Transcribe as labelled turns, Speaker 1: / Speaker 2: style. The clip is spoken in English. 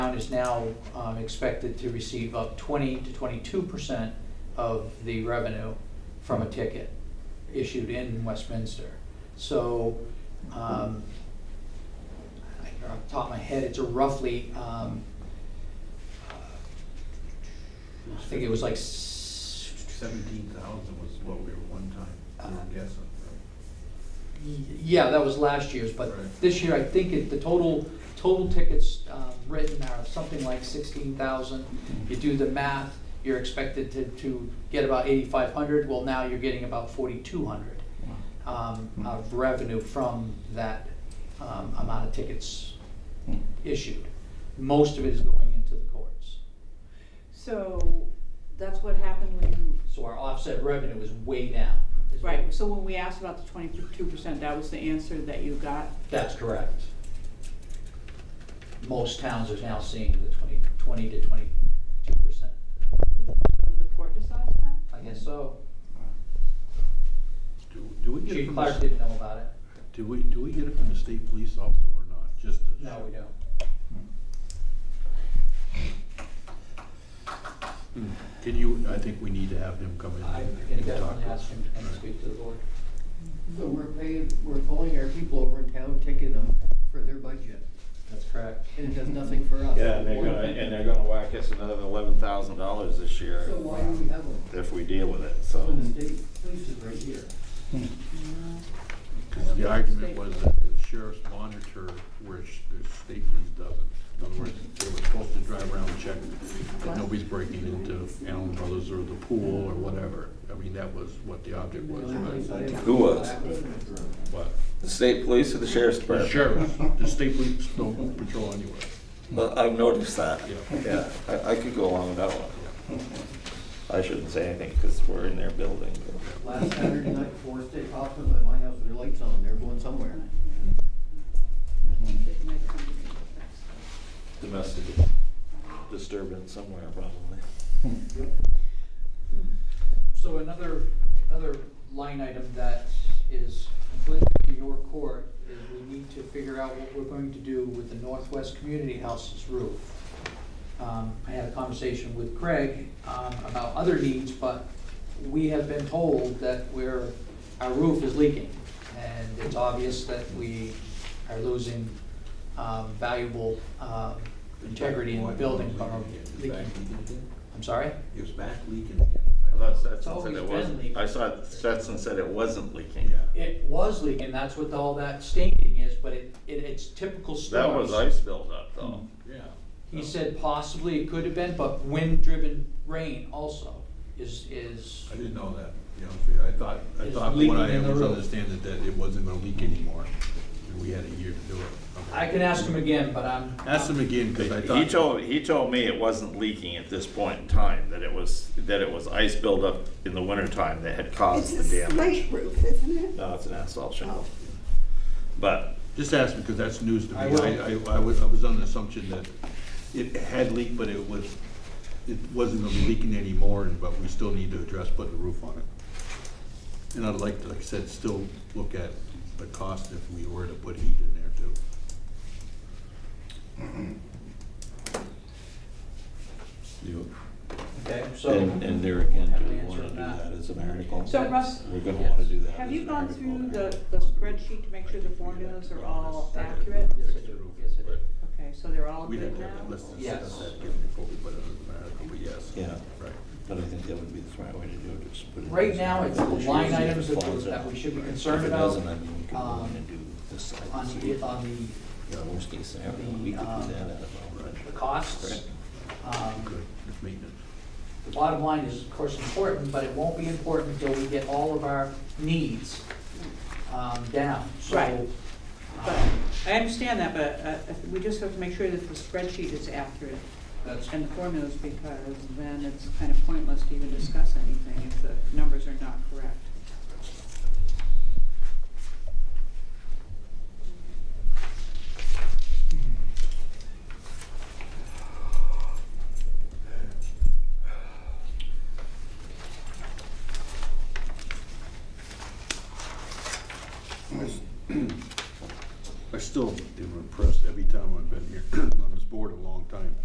Speaker 1: town is now um, expected to receive up twenty to twenty-two percent of the revenue from a ticket issued in Westminster. So, um, I- off the top of my head, it's a roughly, um, I think it was like s-
Speaker 2: Seventeen thousand was what we were one time, we were guessing.
Speaker 1: Yeah, that was last year's, but
Speaker 2: Right.
Speaker 1: this year, I think it, the total, total tickets um, written are something like sixteen thousand. You do the math, you're expected to, to get about eighty-five hundred, well, now you're getting about forty-two hundred um, of revenue from that um, amount of tickets issued. Most of it is going into the courts.
Speaker 3: So that's what happened when you,
Speaker 1: So our offset revenue is way down. is what-
Speaker 3: right, so when we asked about the twenty-two percent, that was the answer that you got?
Speaker 1: That's correct. Most towns are now seeing the twenty, twenty to twenty-two percent.
Speaker 3: The court decides that?
Speaker 1: I guess so.
Speaker 2: Do, do we get it
Speaker 1: Chief
Speaker 2: from the,
Speaker 1: Clark
Speaker 2: s-
Speaker 1: didn't know about it.
Speaker 2: do we, do we get it from the state police also or not, just? the-
Speaker 1: No, we don't.
Speaker 2: Hmm. Can you, I think we need to have him come in.
Speaker 1: I
Speaker 2: and
Speaker 1: can
Speaker 2: talk
Speaker 1: definitely
Speaker 2: to us.
Speaker 1: ask him to come and speak to the board.
Speaker 4: So we're paying, we're calling our people over in town, ticketing them for their budget,
Speaker 1: That's correct.
Speaker 4: and it does nothing for us.
Speaker 5: Yeah, and they're gonna, and they're gonna whack us another eleven thousand dollars this year
Speaker 4: So why do we have them?
Speaker 5: if we deal with it, so.
Speaker 4: When the state police is right here.
Speaker 2: Because The argument was that the sheriff's monitor, where sh- the state police doesn't. In other words, they were supposed to drive around and check that nobody's breaking into Allen Brothers or the pool or whatever. I mean, that was what the object was, but,
Speaker 5: Who was?
Speaker 2: but
Speaker 5: The state police or the sheriff's
Speaker 2: the
Speaker 5: department?
Speaker 2: sheriff, the state police don't patrol anywhere.
Speaker 5: Well, I've noticed that.
Speaker 2: Yeah.
Speaker 5: Yeah, I, I could go along with that one. I shouldn't say anything, cause we're in their building. but-
Speaker 4: Last Saturday night, four state cops was at my house with their lights on, they're going somewhere.
Speaker 5: Domestic disturbance somewhere probably.
Speaker 1: So another, another line item that is completely to your court is we need to figure out what we're going to do with the Northwest Community House's roof. Um, I had a conversation with Craig, um, about other needs, but we have been told that we're, our roof is leaking. And it's obvious that we are losing, um, valuable, uh, integrity in the building from leaking. I'm sorry?
Speaker 2: It was back leaking again.
Speaker 5: I thought Stetson
Speaker 1: always
Speaker 5: said it
Speaker 1: been
Speaker 5: wasn't,
Speaker 1: leaking.
Speaker 5: I saw Stetson said it wasn't leaking.
Speaker 2: Yeah.
Speaker 1: It was leaking, that's what all that staining is, but it, it, it's typical
Speaker 5: That
Speaker 1: storms.
Speaker 5: was ice buildup though.
Speaker 2: Yeah.
Speaker 1: He said possibly it could have been, but wind-driven rain also is, is,
Speaker 2: I didn't know that, to be honest with you. I thought, I
Speaker 1: It's
Speaker 2: thought
Speaker 1: leaking
Speaker 2: what I
Speaker 1: in the
Speaker 2: was
Speaker 1: roof.
Speaker 2: understanding that it wasn't gonna leak anymore. and We had a year to do it.
Speaker 1: I can ask him again, but I'm.
Speaker 2: Ask him again, because I thought.
Speaker 5: He told, he told me it wasn't leaking at this point in time, that it was, that it was ice buildup in the wintertime that had
Speaker 6: It's
Speaker 5: caused
Speaker 6: a
Speaker 5: the damage.
Speaker 6: slate roof, isn't it?
Speaker 5: No, it's an asphalt shingle.
Speaker 6: Oh.
Speaker 5: But
Speaker 2: Just ask because that's news to me.
Speaker 1: I will.
Speaker 2: I, I, I was, I was on the assumption that it had leaked, but it was, it wasn't gonna be leaking anymore, and- but we still need to address putting a roof on it. And I'd like, to, like I said, still look at the cost if we were to put heat in there too. You,
Speaker 1: Okay, so.
Speaker 7: And, and there again,
Speaker 1: Have
Speaker 7: do we
Speaker 1: an
Speaker 7: wanna
Speaker 1: answer
Speaker 7: do
Speaker 1: on that.
Speaker 7: that as an article?
Speaker 3: So Russ,
Speaker 7: We're gonna wanna do that.
Speaker 3: have
Speaker 7: as
Speaker 3: you
Speaker 7: an
Speaker 3: gone
Speaker 7: article
Speaker 3: through
Speaker 7: in
Speaker 3: the,
Speaker 7: there.
Speaker 3: the spreadsheet to make sure the formulas are all accurate?
Speaker 1: Yes, I do, yes, I do.
Speaker 3: Okay, so they're all
Speaker 2: we
Speaker 3: good
Speaker 2: didn't have that
Speaker 3: now?
Speaker 2: listed,
Speaker 1: Yes.
Speaker 2: that again before we put it in the article, but yes.
Speaker 7: Yeah.
Speaker 2: Right.
Speaker 7: But I think that would be the smart way to do it, just put it.
Speaker 1: Right
Speaker 7: as an
Speaker 1: now, it's
Speaker 7: article,
Speaker 1: line
Speaker 7: choose if it
Speaker 1: items that
Speaker 7: falls
Speaker 1: we- that
Speaker 7: out.
Speaker 1: we should be
Speaker 7: Right.
Speaker 1: concerned
Speaker 7: If it
Speaker 1: about,
Speaker 7: doesn't, I mean, we could go
Speaker 1: um,
Speaker 7: in and do this side. and
Speaker 1: On
Speaker 7: see.
Speaker 1: the, on
Speaker 7: You know, worst case scenario,
Speaker 1: the,
Speaker 7: we could do that out
Speaker 1: um,
Speaker 7: of our
Speaker 1: the
Speaker 7: budget.
Speaker 1: costs. Um,
Speaker 2: Good, It's maintenance.
Speaker 1: The bottom line is, of course, important, but it won't be important until we get all of our needs um, down. So,
Speaker 3: Right. But
Speaker 1: um,
Speaker 3: I understand that, but uh, we just have to make sure that the spreadsheet is accurate
Speaker 1: That's,
Speaker 3: and the formulas, because then it's kind of pointless to even discuss anything if the numbers are not correct.
Speaker 2: I still am impressed every time I've been here on this board a long time.